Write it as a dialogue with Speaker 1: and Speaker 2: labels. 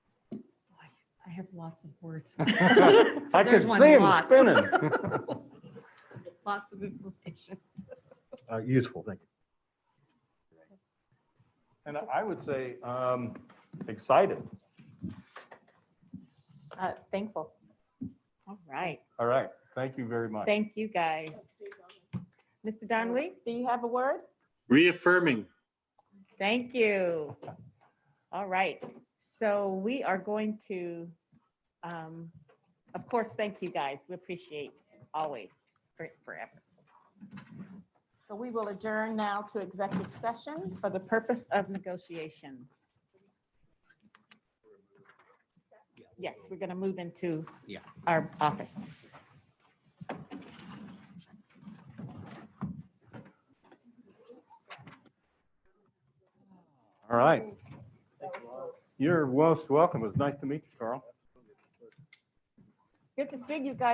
Speaker 1: I have lots of words. So
Speaker 2: I could
Speaker 1: there's one,
Speaker 2: see him
Speaker 1: lots.
Speaker 2: spinning.
Speaker 1: Lots of information.
Speaker 2: Uh, Useful, thank you. And I would say, um, excited.
Speaker 3: Uh, Thankful.
Speaker 4: All right.
Speaker 2: All right, thank you very much.
Speaker 4: Thank you, guys. Mr. Donley,
Speaker 3: Do you have a word?
Speaker 5: Reaffirming.
Speaker 4: thank you. All right. So we are going to, um, of course, thank you, guys. We appreciate always for- forever.
Speaker 3: So we will adjourn now to executive session.
Speaker 4: For the purpose of negotiation. Yes, we're going to move into
Speaker 6: Yeah.
Speaker 4: our office.
Speaker 2: All right. You're most welcome. It was nice to meet you, Carl.
Speaker 4: Good to see you guys.